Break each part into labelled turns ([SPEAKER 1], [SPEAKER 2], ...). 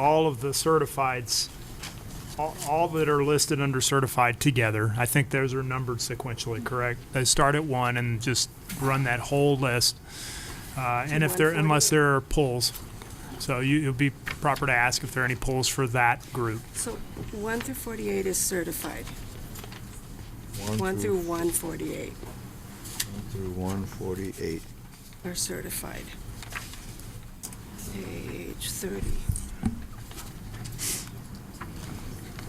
[SPEAKER 1] all of the certifieds, all, all that are listed under certified together. I think those are numbered sequentially, correct? They start at one and just run that whole list. Uh, and if there, unless there are pulls. So you, it would be proper to ask if there are any pulls for that group.
[SPEAKER 2] So one through forty-eight is certified, one through one forty-eight
[SPEAKER 3] one Through one forty-eight.
[SPEAKER 2] are certified. Page thirty.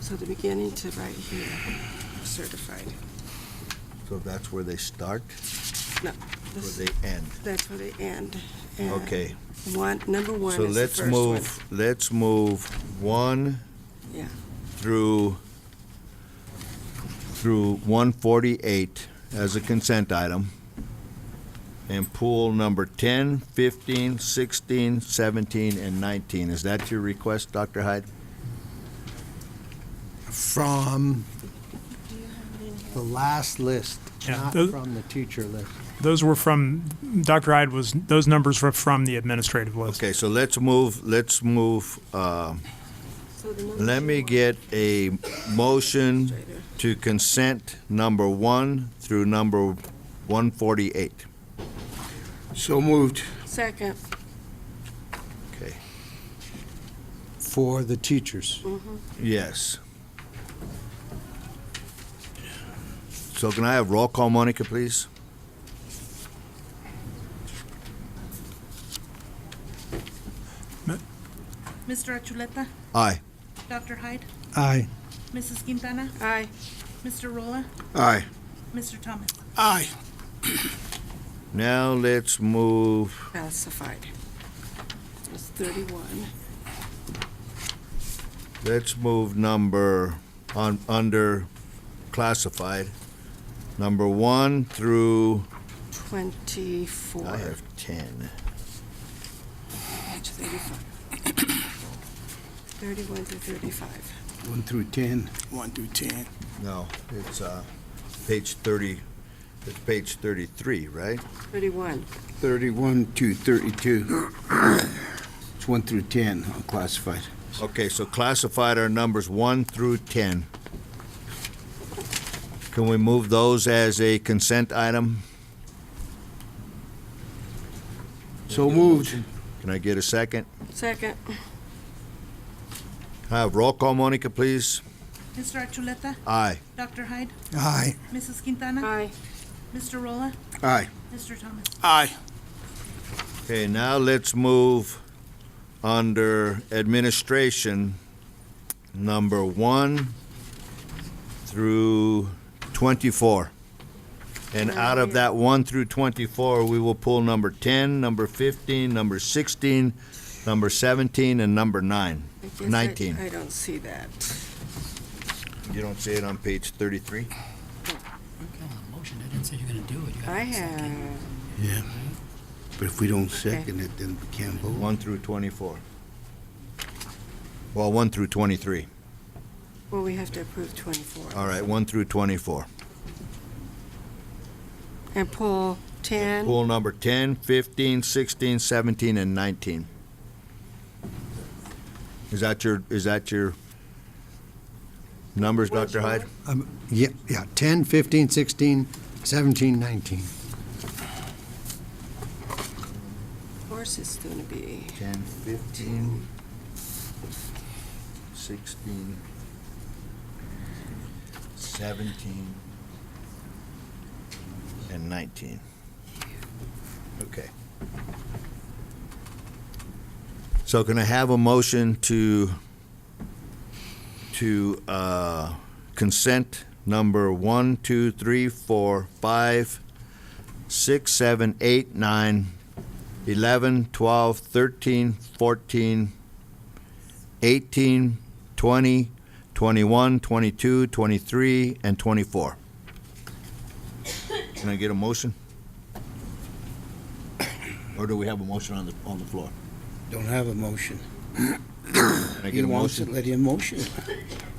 [SPEAKER 2] So the beginning to right here, certified.
[SPEAKER 3] So that's where they start,
[SPEAKER 2] No,
[SPEAKER 3] where
[SPEAKER 2] this,
[SPEAKER 3] they end.
[SPEAKER 2] that's where they end. and
[SPEAKER 3] Okay,
[SPEAKER 2] One, number one
[SPEAKER 3] so
[SPEAKER 2] is the
[SPEAKER 3] let's
[SPEAKER 2] first one.
[SPEAKER 3] move, let's move one
[SPEAKER 2] Yeah.
[SPEAKER 3] through, through one forty-eight as a consent item. And pool number 10, 15, 16, 17, and nineteen. Is that your request, Dr. Hyde?
[SPEAKER 4] from the last list,
[SPEAKER 1] Yeah,
[SPEAKER 4] not
[SPEAKER 1] those-
[SPEAKER 4] from the teacher list.
[SPEAKER 1] Those were from, Dr. Hyde was, those numbers were from the administrative list.
[SPEAKER 3] Okay, so let's move, let's move, uh,
[SPEAKER 2] So the number
[SPEAKER 3] let me
[SPEAKER 2] one-
[SPEAKER 3] get a motion
[SPEAKER 2] Straighter.
[SPEAKER 3] to consent number one through number 148.
[SPEAKER 5] So moved.
[SPEAKER 2] Second,
[SPEAKER 3] Okay.
[SPEAKER 4] For the teachers.
[SPEAKER 3] Yes. So can I have roll call, Monica, please?
[SPEAKER 6] Mr. Achuleta,
[SPEAKER 3] Aye.
[SPEAKER 6] Dr. Hyde,
[SPEAKER 4] Aye.
[SPEAKER 6] Mrs. Quintana,
[SPEAKER 2] aye.
[SPEAKER 6] Mr. Rolla,
[SPEAKER 5] Aye.
[SPEAKER 6] Mr. Thomas.
[SPEAKER 5] Aye.
[SPEAKER 3] Now let's move,
[SPEAKER 2] Calcified. It's thirty-one.
[SPEAKER 3] let's move number, on, under classified, number one through,
[SPEAKER 2] 24.
[SPEAKER 3] I have 10.
[SPEAKER 2] Page 35. 31 to 35.
[SPEAKER 5] One through 10. One through 10.
[SPEAKER 3] No, it's, uh, page 30, it's page 33, right?
[SPEAKER 2] 31.
[SPEAKER 5] 31 to 32. It's one through 10, unclassified.
[SPEAKER 3] Okay, so classified are numbers one through ten. Can we move those as a consent item?
[SPEAKER 5] So moved.
[SPEAKER 3] Can I get a second?
[SPEAKER 2] Second,
[SPEAKER 3] Can I Have roll call, Monica, please.
[SPEAKER 6] Mr. Achuleta,
[SPEAKER 3] Aye.
[SPEAKER 6] Dr. Hyde,
[SPEAKER 4] Aye.
[SPEAKER 6] Mrs. Quintana,
[SPEAKER 2] aye.
[SPEAKER 6] Mr. Rolla,
[SPEAKER 5] Aye.
[SPEAKER 6] Mr. Thomas.
[SPEAKER 5] Aye.
[SPEAKER 3] Okay, now let's move under administration, number one through twenty-four. And out of that one through twenty-four, we will pull number ten, number fifteen, number sixteen, number seventeen, and number nine.
[SPEAKER 2] I guess I-
[SPEAKER 3] 19.
[SPEAKER 2] I don't see that.
[SPEAKER 3] You don't see it on page thirty-three?
[SPEAKER 7] Come on, motion, I didn't say you're gonna do it. You gotta
[SPEAKER 2] I
[SPEAKER 7] make a second.
[SPEAKER 2] have,
[SPEAKER 5] Yeah. But if we don't second it, then we can't vote.
[SPEAKER 3] One through twenty-four. Well, one through twenty-three.
[SPEAKER 2] well, we have to approve 24.
[SPEAKER 3] All right, one through twenty-four.
[SPEAKER 2] And pull 10,
[SPEAKER 3] Pool number 10, 15, 16, 17, and 19. Is that your, is that your numbers, Dr. Hyde?
[SPEAKER 4] Um, yeah, yeah, 10, 15, 16, 17, 19.
[SPEAKER 2] of course it's going to be
[SPEAKER 3] 10, 15, 16, 17, and 19. Okay. So can I have a motion to, to uh, consent number 1, 2, 3, 4, 5, 6, 7, 8, 9, 11, 12, 13, 14, 18, 20, 21, 22, 23, and 24. Can I get a motion? Or do we have a motion on the, on the floor?
[SPEAKER 5] Don't have a motion.
[SPEAKER 3] Can I
[SPEAKER 5] He
[SPEAKER 3] get a
[SPEAKER 5] wants it,
[SPEAKER 3] motion?
[SPEAKER 5] let him motion.